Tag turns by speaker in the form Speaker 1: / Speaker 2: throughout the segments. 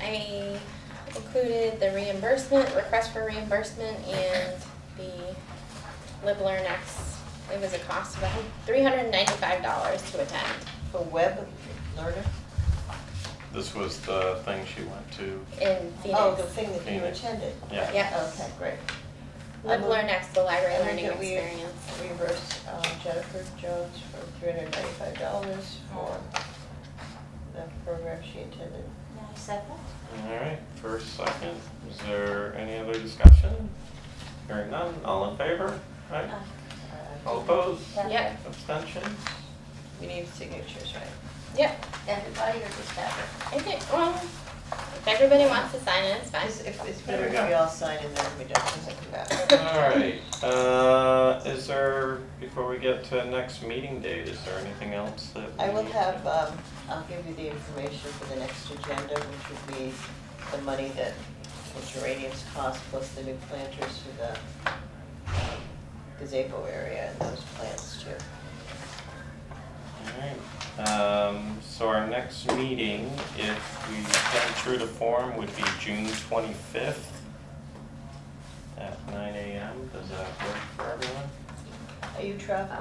Speaker 1: I included the reimbursement, request for reimbursement, and the Live Learn X. It was a cost of three hundred and ninety-five dollars to attend.
Speaker 2: For web learner?
Speaker 3: This was the thing she went to.
Speaker 1: in
Speaker 2: Oh,
Speaker 1: Phoenix.
Speaker 2: the thing that you
Speaker 3: Phoenix.
Speaker 2: attended?
Speaker 3: Yeah.
Speaker 1: Yeah.
Speaker 2: Okay, great.
Speaker 1: Live,
Speaker 2: I
Speaker 1: learn,
Speaker 2: move-
Speaker 1: next, the library
Speaker 2: I move
Speaker 1: learning
Speaker 2: that we
Speaker 1: experience.
Speaker 2: Reverse uh, Jennifer Jones for three hundred ninety-five dollars for the program she attended.
Speaker 4: I second.
Speaker 3: All right, first, second, is there any other discussion? Hearing none, all in favor? Right?
Speaker 4: Uh,
Speaker 2: Uh,
Speaker 3: All opposed?
Speaker 4: Yeah.
Speaker 1: Yep,
Speaker 3: Abstentions?
Speaker 2: We need signatures, right?
Speaker 1: yep.
Speaker 4: Everybody or just Deborah?
Speaker 1: I think, well, if everybody wants to sign it, it's fine.
Speaker 2: It's- If, it's
Speaker 3: There
Speaker 2: better
Speaker 3: we
Speaker 2: if
Speaker 3: go.
Speaker 2: we all sign and then we don't, does it come back?
Speaker 3: All right, uh, is there, before we get to next meeting date, is there anything else that we
Speaker 2: I will
Speaker 3: need to-
Speaker 2: have, um, I'll give you the information for the next agenda, which would be the money that the geraniums cost plus the new planters for the um, gazebo area and those plants too.
Speaker 3: Alright, um, so our next meeting, if we come true to form, would be June twenty-fifth at nine AM, does that work for everyone?
Speaker 2: Are you traveling?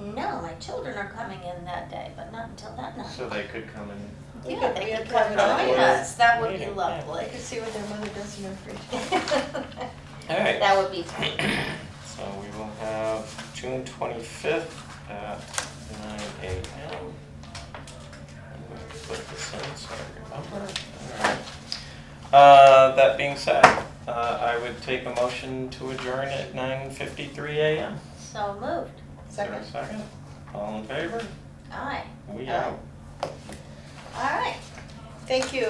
Speaker 4: Um, no, my children are coming in that day, but not until that night.
Speaker 3: So they could come in.
Speaker 2: We
Speaker 4: Yeah,
Speaker 2: could-
Speaker 4: they
Speaker 2: we
Speaker 4: could
Speaker 2: could
Speaker 4: come
Speaker 2: have it
Speaker 4: join
Speaker 3: all.
Speaker 4: us, that would be
Speaker 3: Yeah.
Speaker 4: lovely.
Speaker 2: I can see what their mother does in her free time.
Speaker 3: Alright.
Speaker 4: That would be fun.
Speaker 3: So we will have June twenty-fifth at nine AM. I'm gonna put this in so I remember. Alright. Uh, that being said, uh, I would take a motion to adjourn at nine fifty-three AM.
Speaker 4: So moved,
Speaker 3: Is there a
Speaker 2: Second,
Speaker 3: Second. All in favor?
Speaker 4: aye.
Speaker 3: We
Speaker 2: Aye.
Speaker 3: out.
Speaker 4: All right.
Speaker 2: thank you,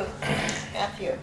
Speaker 2: Matthew.